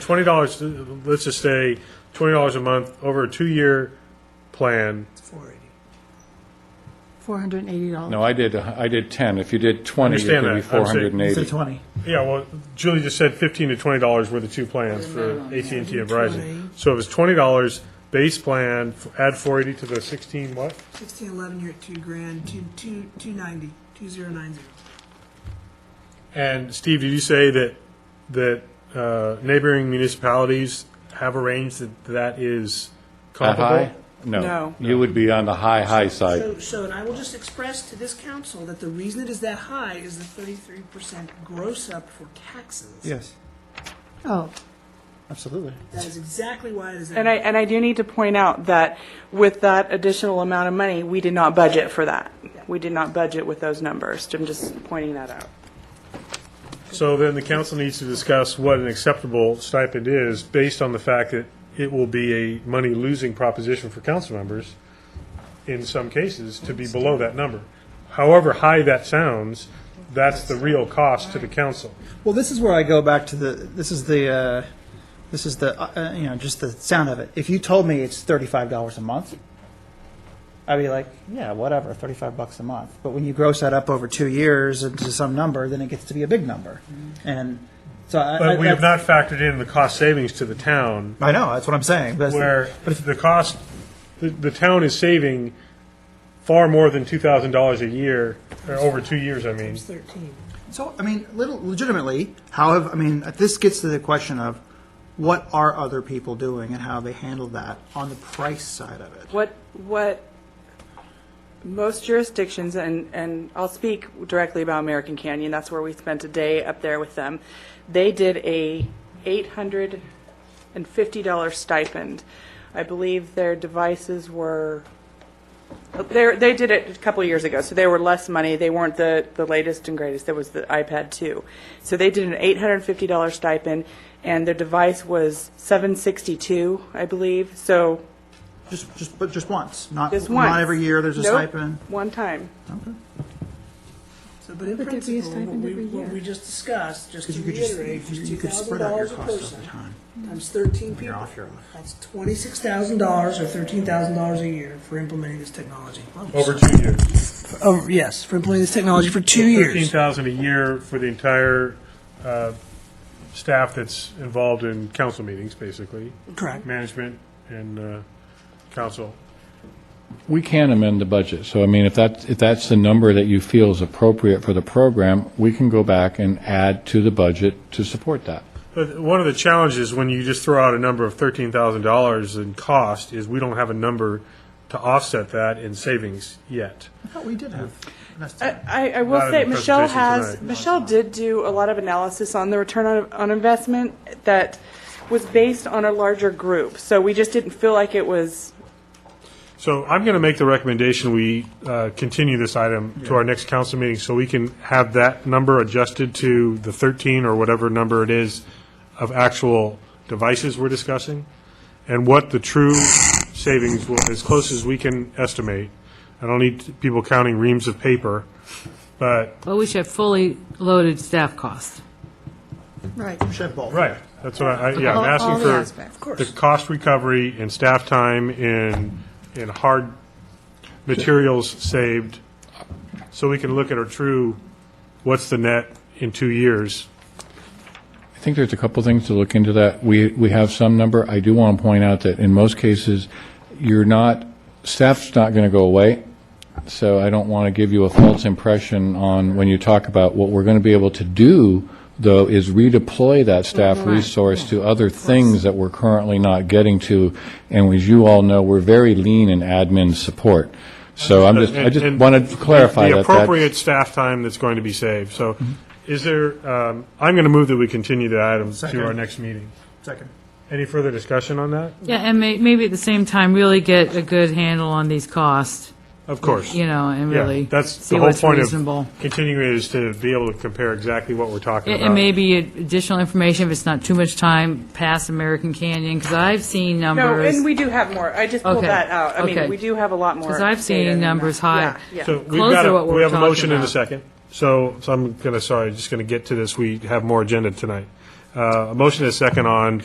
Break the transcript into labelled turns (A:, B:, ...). A: twenty dollars. Let's just say twenty dollars a month over a two-year plan.
B: $480.
C: No, I did, uh, I did 10. If you did 20, it
A: Understand
C: would be
A: that. I'm saying-
C: 480.
D: Say 20.
A: Yeah, well, Julie just said fifteen to twenty dollars were the two plans for AT and T and Verizon. So it was twenty dollars base plan. f- Add four eighty to the sixteen. What?
E: Sixteen eleven, you're at two grand, two, two, two ninety, two zero nine zero.
A: And Steve, did you say that that uh, neighboring municipalities have arranged that that is
C: That
A: comparable?
C: high?
B: No.
C: No. You would be on the high, high side.
E: So, so, and I will just express to this council that the reason it is that high is the thirty-three percent gross up for taxes.
D: Yes,
B: Oh,
D: absolutely.
E: That is exactly why it is that.
F: And I, and I do need to point out that with that additional amount of money, we did not budget for that. We did not budget with those numbers. I'm just pointing that out.
A: So then the council needs to discuss what an acceptable stipend is based on the fact that it will be a money-losing proposition for council members in some cases to be below that number. However high that sounds, that's the real cost to the council.
D: Well, this is where I go back to the, this is the, uh, this is the, uh, uh, you know, just the sound of it. If you told me it's $35 a month, I'd be like, yeah, whatever, 35 bucks a month. But when you gross that up over two years into some number, then it gets to be a big number. And so I. I-
A: But we have
D: that's-
A: not factored in the cost savings to the town
D: I know, that's what I'm saying. That's the-
A: where the cost, the, the town is saving far more than two thousand dollars a year, or over two years, I mean.
E: Thirteen.
D: So, I mean, little, legitimately, how have, I mean, this gets to the question of what are other people doing and how they handle that on the price side of it?
F: What, what most jurisdictions, and, and I'll speak directly about American Canyon, that's where we spent a day up there with them. They did a $850 stipend. I believe their devices were, they, they did it a couple of years ago, so they were less money. They weren't the, the latest and greatest. There was the iPad 2. So they did an $850 stipend, and their device was 762, I believe. So
D: Just, just, but just once, not,
F: just once.
D: not every year there's a
F: Nope,
D: stipend?
F: One time.
E: So, but in
B: But there'd be a
E: principle, what
B: stipend
E: we,
B: every
E: what
B: year.
E: we just discussed, just
D: Because
E: to
D: you could just,
E: reiterate, was
D: you
E: two
D: could
E: thousand
D: spread out your
E: dollars a
D: costs
E: person.
D: over time.
E: Times thirteen people.
D: You're off, you're off.
E: That's twenty-six thousand dollars or thirteen thousand dollars a year for implementing this technology.
A: Over two years.
E: Oh, yes, for implementing this technology for two years.
A: Thirteen thousand a year for the entire uh, staff that's involved in council meetings, basically,
E: Correct.
A: management and uh, council.
C: We can amend the budget. So I mean, if that, if that's the number that you feel is appropriate for the program, we can go back and add to the budget to support that.
A: But one of the challenges when you just throw out a number of thirteen thousand dollars in cost is we don't have a number to offset that in savings yet.
D: I thought we did have.
E: Uh,
D: enough time.
F: I, I
A: Not
F: will
A: in
F: say,
A: the
F: Michelle
A: presentation
F: has,
A: tonight.
F: Michelle did do a lot of analysis on the return on, on investment that was based on a larger group. So we just didn't feel like it was,
A: So I'm going to make the recommendation, we uh, continue this item to our next council meeting, so we can have that number adjusted to the 13 or whatever number it is of actual devices we're discussing, and what the true savings will, as close as we can estimate. I don't need people counting reams of paper, but.
G: Well, we should have fully loaded staff cost.
B: right.
D: We should have both.
A: Right. That's what I, I- yeah,
B: All-
A: I'm
B: all the
A: asking
B: aspects. Of
A: for the cost recovery and staff time and, and hard materials saved, so we can look at our true, what's the net in two years?
C: I think there's a couple things to look into that. We, we have some number. I do want to point out that in most cases, you're not, staff's not going to go away. So I don't want to give you a false impression on when you talk about what we're going to be able to do, though, is redeploy that staff resource to other things that we're currently not getting to. And as you all know, we're very lean in admin support. So I'm just, I just
A: And-
C: wanted to clarify that.
A: The
C: that's-
A: appropriate staff time that's going to be saved. So is there, um, I'm going to move that we continue the item to our
D: Second.
A: next meeting.
D: Second.
A: Any further discussion on that?
G: Yeah, and may, maybe at the same time, really get a good handle on these costs,
A: Of course.
G: you know, and really
A: Yeah, that's
G: see
A: the whole
G: what's
A: point
G: reasonable.
A: of continuing is to be able to compare exactly what we're talking
G: And
A: about.
G: and maybe additional information, if it's not too much time, past American Canyon, because I've seen
F: no,
G: numbers.
F: and we do have more. I just pulled
G: Okay,
F: that out. I
G: okay.
F: mean, we do have a lot more.
G: 'Cause I've
F: data
G: seen
F: than that.
G: numbers high.
F: Yeah, yeah.
A: So we've
G: Close
A: got,
G: to
A: a-
G: what we're
A: we have a
G: talking
A: motion in a
G: about.
A: second. So, so I'm going to, sorry, just going to get to this. We have more agenda tonight. Uh, A motion and a second on